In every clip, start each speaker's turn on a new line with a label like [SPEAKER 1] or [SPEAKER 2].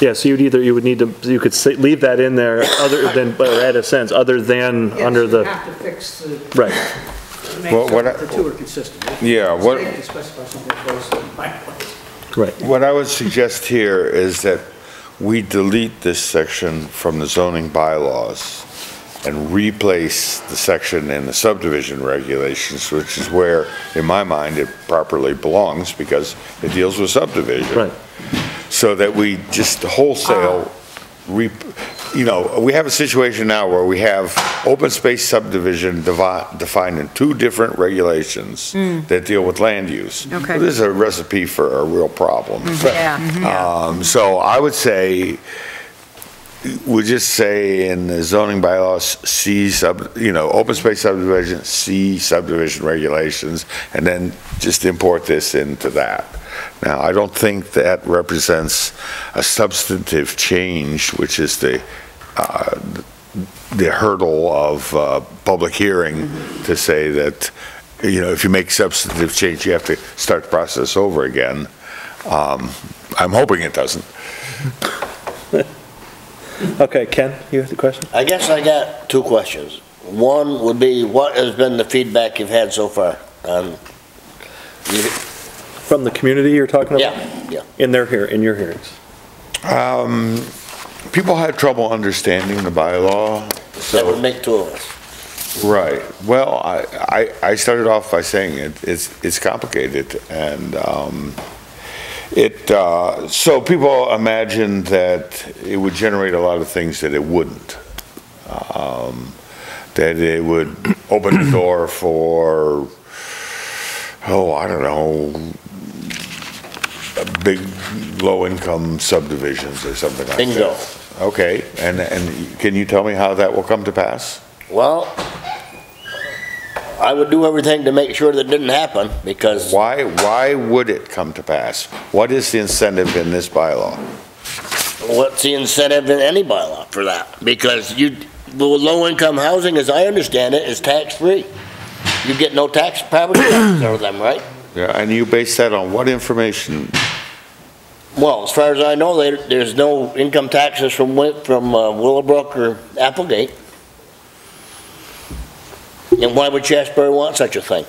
[SPEAKER 1] Yeah, so you'd either, you would need to, you could say, leave that in there other than, or add a sentence, other than under
[SPEAKER 2] You
[SPEAKER 1] the,
[SPEAKER 2] have to fix the,
[SPEAKER 1] right.
[SPEAKER 2] make
[SPEAKER 3] Well,
[SPEAKER 2] sure
[SPEAKER 3] what
[SPEAKER 2] that
[SPEAKER 3] I-
[SPEAKER 2] the two are consistent. If
[SPEAKER 3] Yeah,
[SPEAKER 2] it's
[SPEAKER 3] what-
[SPEAKER 2] safe to specify something close to bylaws.
[SPEAKER 1] Right.
[SPEAKER 3] What I would suggest here is that we delete this section from the zoning bylaws and replace the section in the subdivision regulations, which is where, in my mind, it properly belongs because it deals with subdivision.
[SPEAKER 1] Right.
[SPEAKER 3] So that we just
[SPEAKER 4] Ah.
[SPEAKER 3] wholesale, re, you know, we have a situation now where we have open space subdivision devi- defined in two different regulations that deal with land use.
[SPEAKER 4] Hmm. Okay.
[SPEAKER 3] This is a recipe for a real problem.
[SPEAKER 4] Yeah, yeah.
[SPEAKER 3] Um, So I would say, we just say in the zoning bylaws, C sub, you know, open space subdivision, C subdivision regulations, and then just import this into that. Now, I don't think that represents a substantive change, which is the, uh, the hurdle of uh, public hearing to say that, you know, if you make substantive change, you have to start the process over again. Um, I'm hoping it doesn't.
[SPEAKER 1] Okay, Ken, you have the question?
[SPEAKER 5] I guess I got two questions. One would be, what has been the feedback you've had so far on,
[SPEAKER 1] From the community you're talking about?
[SPEAKER 5] yeah, yeah.
[SPEAKER 1] In their hear, in your hearings?
[SPEAKER 3] Um, People had trouble understanding the bylaw,
[SPEAKER 5] That would
[SPEAKER 3] so,
[SPEAKER 5] make two of us.
[SPEAKER 3] right. Well, I, I I started off by saying it- it's, it's complicated, and um, it, uh, so people imagined that it would generate a lot of things that it wouldn't. Um, That it would open the door for, oh, I don't know, big, low-income subdivisions or something like that.
[SPEAKER 5] Bingo.
[SPEAKER 3] Okay, and, and can you tell me how that will come to pass?
[SPEAKER 5] Well, I would do everything to make sure that didn't happen, because
[SPEAKER 3] Why, why would it come to pass? What is the incentive in this bylaw?
[SPEAKER 5] what's the incentive in any bylaw for that? Because you, well, low-income housing, as I understand it, is tax-free. You get no tax, property tax out of them, right?
[SPEAKER 3] Yeah, And you base that on what information?
[SPEAKER 5] Well, as far as I know, there, there's no income taxes from, Wi- from uh, Willowbrook or Applegate. And why would Shasberry want such a thing?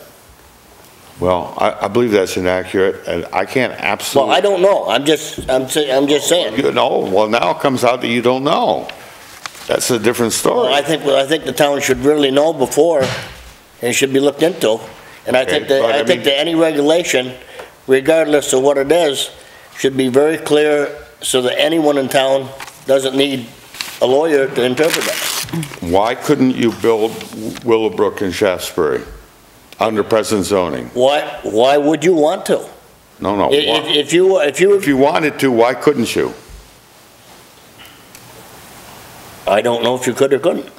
[SPEAKER 3] Well, I, I believe that's inaccurate, and I can't
[SPEAKER 5] Well,
[SPEAKER 3] absolutely.
[SPEAKER 5] I don't know, I'm just, I'm, sa- I'm just saying.
[SPEAKER 3] You know, well, now it comes out that you don't know. That's a different
[SPEAKER 5] Well,
[SPEAKER 3] story.
[SPEAKER 5] I think, well, I think the town should really know before, and should be looked into. And I think
[SPEAKER 3] Okay,
[SPEAKER 5] that,
[SPEAKER 3] but I
[SPEAKER 5] I think
[SPEAKER 3] mean-
[SPEAKER 5] that any regulation, regardless of what it is, should be very clear so that anyone in town doesn't need a lawyer to interpret that.
[SPEAKER 3] Why couldn't you build Willowbrook and Shaftesbury under present zoning?
[SPEAKER 5] Why, why would you want to?
[SPEAKER 3] No, no.
[SPEAKER 5] If,
[SPEAKER 3] why-
[SPEAKER 5] if- if you, if you,
[SPEAKER 3] If you wanted to, why couldn't you?
[SPEAKER 5] I don't know if you could or couldn't.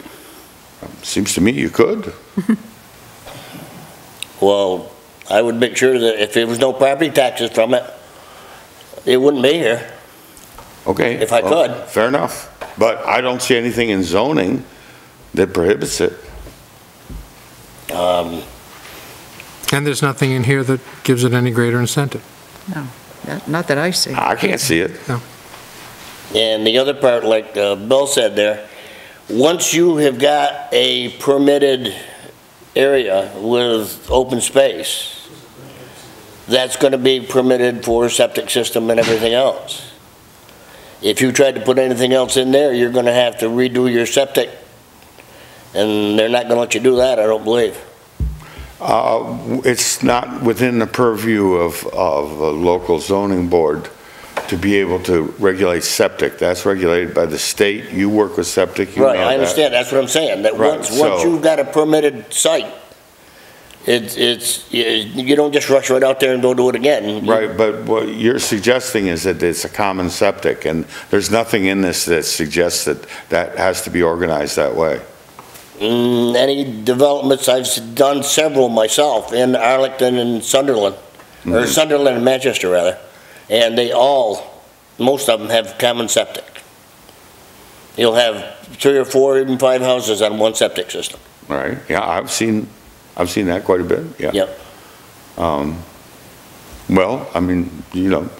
[SPEAKER 3] Seems to me you could.
[SPEAKER 5] Well, I would make sure that if there was no property taxes from it, it wouldn't be here.
[SPEAKER 3] Okay.
[SPEAKER 5] If I
[SPEAKER 3] well,
[SPEAKER 5] could.
[SPEAKER 3] Fair enough. But I don't see anything in zoning that prohibits it.
[SPEAKER 5] Um,
[SPEAKER 6] And there's nothing in here that gives it any greater incentive.
[SPEAKER 4] Not- Not that I see.
[SPEAKER 3] I can't see it.
[SPEAKER 5] and the other part, like uh, Bill said there, once you have got a permitted area with open space, that's gonna be permitted for septic system and everything else. If you tried to put anything else in there, you're gonna have to redo your septic, and they're not gonna let you do that, I don't believe.
[SPEAKER 3] Uh, It's not within the purview of, of a local zoning board to be able to regulate septic. That's regulated by the state. You work with septic, you know
[SPEAKER 5] Right, I
[SPEAKER 3] that.
[SPEAKER 5] understand, that's what I'm saying, that
[SPEAKER 3] Right,
[SPEAKER 5] once, once
[SPEAKER 3] so-
[SPEAKER 5] you've got a permitted site, it's, it's, you- you don't just rush right out there and go do it again. You-
[SPEAKER 3] Right, but what you're suggesting is that it's a common septic, and there's nothing in this that suggests that that has to be organized that way.
[SPEAKER 5] Mm, any developments, I've s- done several myself in Arlington and Sunderland, or Sunderland and Manchester rather, and they all, most of them have common septic. You'll have three or four, even five houses on one septic system.
[SPEAKER 3] Right, yeah, I've seen, I've seen that quite a bit, yeah.
[SPEAKER 5] Yep.
[SPEAKER 3] Um, Well, I mean, you know,